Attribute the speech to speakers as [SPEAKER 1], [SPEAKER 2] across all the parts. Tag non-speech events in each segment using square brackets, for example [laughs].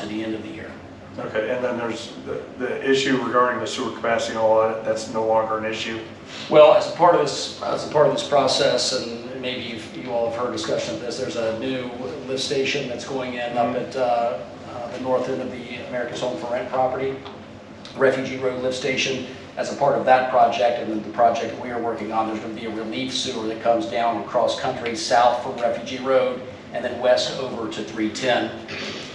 [SPEAKER 1] to the end of the year.
[SPEAKER 2] Okay, and then there's the, the issue regarding the sewer capacity and all that, that's no longer an issue.
[SPEAKER 3] Well, as a part of this, as a part of this process, and maybe you've- you all have heard discussion of this, there's a new lift station that's going in up at uh, uh, the north end of the America's Home for Rent property, Refugee Road Lift Station. As a part of that project and the project we are working on, there's going to be a relief sewer that comes down across country south from Refugee Road and then west over to 310.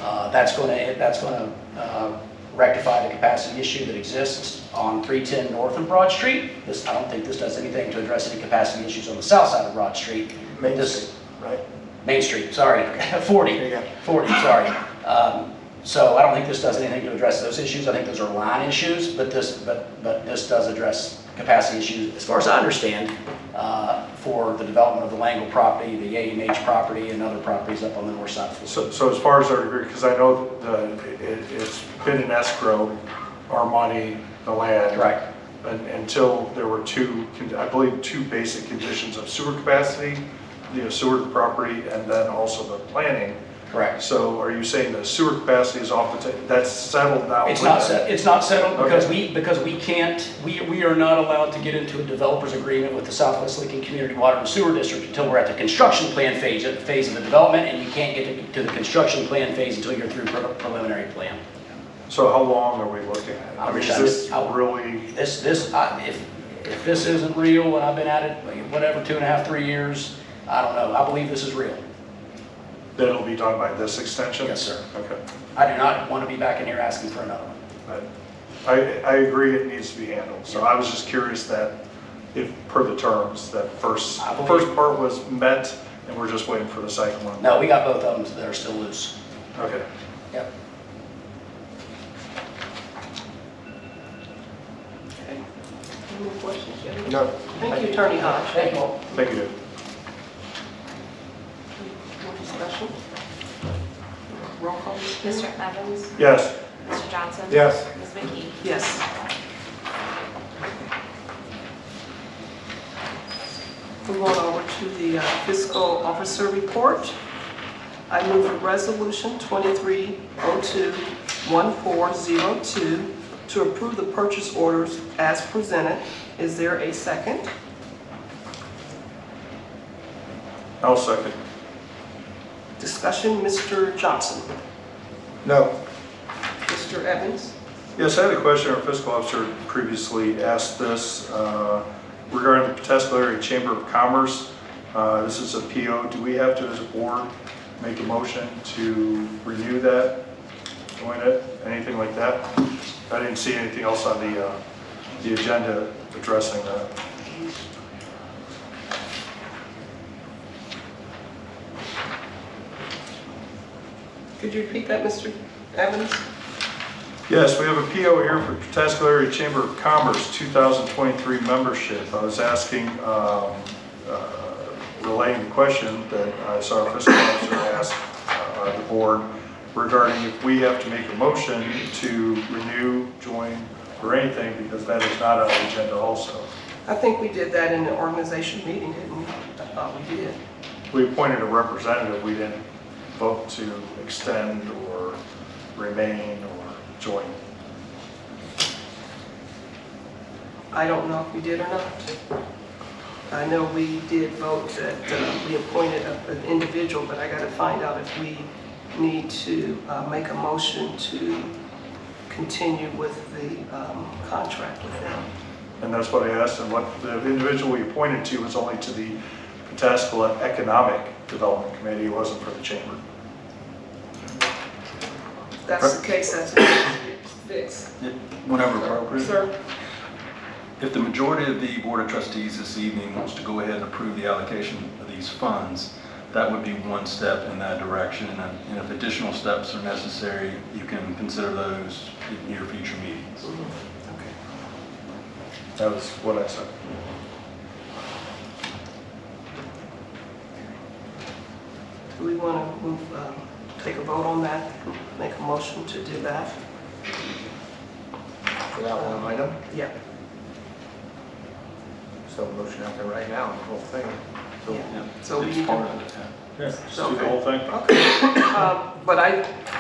[SPEAKER 3] Uh, That's going to, that's going to rectify the capacity issue that exists on 310 North and Broad Street. This, I don't think this does anything to address any capacity issues on the south side of Broad Street.
[SPEAKER 2] Main
[SPEAKER 3] This-
[SPEAKER 2] Street, Right?
[SPEAKER 3] Main Street, sorry, [laughs] 40,
[SPEAKER 2] There you go.
[SPEAKER 3] 40, sorry. Um, So I don't think this does anything to address those issues, I think those are line issues, but this, but, but this does address capacity issues, as far as I understand, uh, for the development of the Langle property, the AMH property, and other properties up on the north side of Florida.
[SPEAKER 2] So, so as far as our degree, because I know the, it, it's been in escrow, our money, the land.
[SPEAKER 3] Right.
[SPEAKER 2] un- Until there were two, con- I believe, two basic conditions of sewer capacity, you know, sewer property, and then also the planning.
[SPEAKER 3] Correct.
[SPEAKER 2] So are you saying the sewer capacity is off the table, that's settled now?
[SPEAKER 3] It's
[SPEAKER 2] with
[SPEAKER 3] not,
[SPEAKER 2] the-
[SPEAKER 3] set- it's not settled because
[SPEAKER 2] Okay.
[SPEAKER 3] we, because we can't, we, we are not allowed to get into a developer's agreement with the Southwest Lincoln Community Water and Sewer District until we're at the construction plan phase, at the phase of the development, and you can't get to- to the construction plan phase until you're through pre- preliminary plan.
[SPEAKER 2] So how long are we looking at?
[SPEAKER 3] I
[SPEAKER 2] I mean,
[SPEAKER 3] wish
[SPEAKER 2] is
[SPEAKER 3] I knew-
[SPEAKER 2] this
[SPEAKER 3] I-
[SPEAKER 2] really?
[SPEAKER 3] This, this, I- if, if this isn't real, and I've been at it, whatever, two and a half, three years, I don't know, I believe this is real.
[SPEAKER 2] that it'll be done by this extension?
[SPEAKER 3] Yes, sir.
[SPEAKER 2] Okay.
[SPEAKER 3] I do not want to be back in here asking for another one.
[SPEAKER 2] I- I, I agree it needs to be handled. So I was just curious that if, per the terms, that first,
[SPEAKER 3] I believe-
[SPEAKER 2] first part was met and we're just waiting for the second one.
[SPEAKER 3] No, we got both of them that are still loose.
[SPEAKER 2] Okay.
[SPEAKER 3] Yep.
[SPEAKER 4] Any more questions, Jim?
[SPEAKER 2] No.
[SPEAKER 4] Thank you, Attorney Hodge.
[SPEAKER 3] Thank you all.
[SPEAKER 2] Thank you.
[SPEAKER 4] More discussion? Roll call.
[SPEAKER 5] Mr. Evans?
[SPEAKER 2] Yes.
[SPEAKER 5] Mr. Johnson?
[SPEAKER 2] Yes.
[SPEAKER 5] Ms. McKee?
[SPEAKER 4] Yes. We're going over to the uh, fiscal officer report. I move a resolution 2302-1402 to approve the purchase orders as presented. Is there a second?
[SPEAKER 2] I'll second.
[SPEAKER 4] Discussion, Mr. Johnson.
[SPEAKER 2] No.
[SPEAKER 4] Mr. Evans?
[SPEAKER 2] Yes, I had a question. Our fiscal officer previously asked this uh, regarding the Potashqueri Area Chamber of Commerce. Uh, This is a PO. Do we have to, as a board, make a motion to renew that, join it, anything like that? I didn't see anything else on the, uh, the agenda addressing that.
[SPEAKER 4] Could you repeat that, Mr. Evans?
[SPEAKER 2] Yes, we have a PO here for Patasko Area Chamber of Commerce, 2023 membership. I was asking, um, uh, relaying the question that I saw our fiscal officer ask uh, the board regarding if we have to make a motion to renew, join, or anything, because that is not on the agenda also.
[SPEAKER 4] I think we did that in the organization meeting, didn't we? I thought we did.
[SPEAKER 2] We appointed a representative, we didn't vote to extend or remain or join.
[SPEAKER 4] I don't know if we did or not. I know we did vote that uh, we appointed a- an individual, but I got to find out if we need to uh, make a motion to continue with the um, contract with them.
[SPEAKER 2] And that's what I asked, and what the individual we appointed to was only to the Pataskala Economic Development Committee, it wasn't for the chamber.
[SPEAKER 4] If that's the case, that's what we need to fix.
[SPEAKER 6] Whenever appropriate.
[SPEAKER 4] Sir?
[SPEAKER 6] If the majority of the Board of Trustees this evening wants to go ahead and approve the allocation of these funds, that would be one step in that direction. And then- and if additional steps are necessary, you can consider those in your future meetings.
[SPEAKER 4] Okay.
[SPEAKER 2] That was what I said.
[SPEAKER 4] Do we want to move, um, take a vote on that, make a motion to do that?
[SPEAKER 7] For that one item,
[SPEAKER 4] Yeah.
[SPEAKER 7] so motion out there right now, the whole thing.
[SPEAKER 4] So we
[SPEAKER 6] It's
[SPEAKER 4] need to-
[SPEAKER 6] part of it, yeah.
[SPEAKER 4] [coughs]
[SPEAKER 2] Let's do the whole thing.
[SPEAKER 4] Okay, Um, but I,